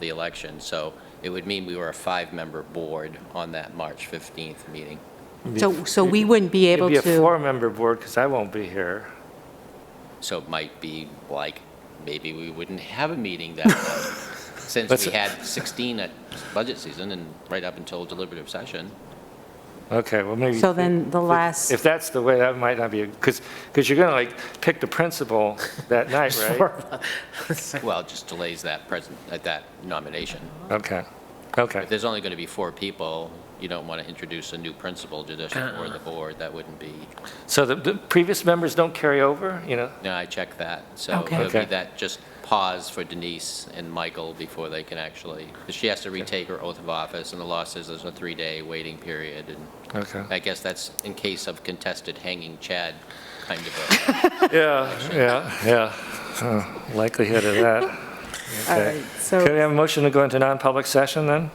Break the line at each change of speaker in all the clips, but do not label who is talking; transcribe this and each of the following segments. the election. So it would mean we were a five-member board on that March 15th meeting.
So, so we wouldn't be able
It'd be a
to,
four-member board, because I won't be here.
So it might be like, maybe we wouldn't have a meeting that night, since
That's-
we had 16 at budget season and right up until deliberative session.
Okay, well, maybe.
So then the last-
If that's the way, that might not be, because, because you're going to like pick the principal that night, right?
Well, it just delays that present, at that nomination.
Okay, okay.
If there's only going to be four people, you don't want to introduce a new principal to this or the board, that wouldn't be,
So the, the previous members don't carry over, you know?
no, I checked that. So
Okay.
it would be
Okay.
that, just pause for Denise and Michael before they can actually, 'cause she has to retake her oath of office, and the law says there's a three-day waiting period, and
Okay.
I guess that's in case of contested hanging Chad kind of
Yeah, yeah, yeah. Oh, Likelihood of that.
all right,
Okay. Could we
uh, so
have a motion to go into non-public session then?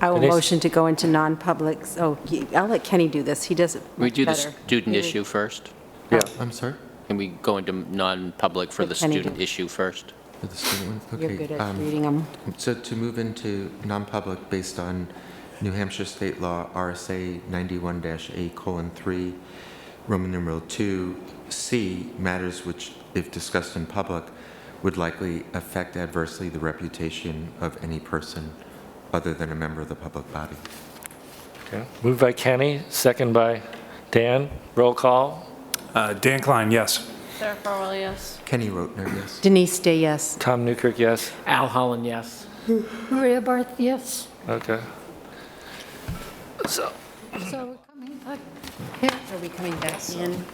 I will
Denise?
motion to go into non-public, oh, y- I'll let Kenny do this, he does it
a. We do the
better.
student issue first?
Yeah.
I'm sorry?
Can we go into non-public for
Yeah,
the
can I do-
student issue first?
For the student one?
You're
Okay,
good at
um,
reading them.
So to move into non-public based on New Hampshire State Law, RSA 91-A colon 3, Roman numeral 2, C, matters which, if discussed in public, would likely affect adversely the reputation of any person other than a member of the public body.
Okay. Moved by Kenny, second by Dan. Roll call.
Uh, Dan Klein, yes.
Sarah Farwell, yes.
Kenny Rotner, yes?
Denise Day, yes.
Tom Newkirk, yes.
Al Holland, yes.
Maria Barth, yes.
Okay.
So we're coming back. Are we coming back in?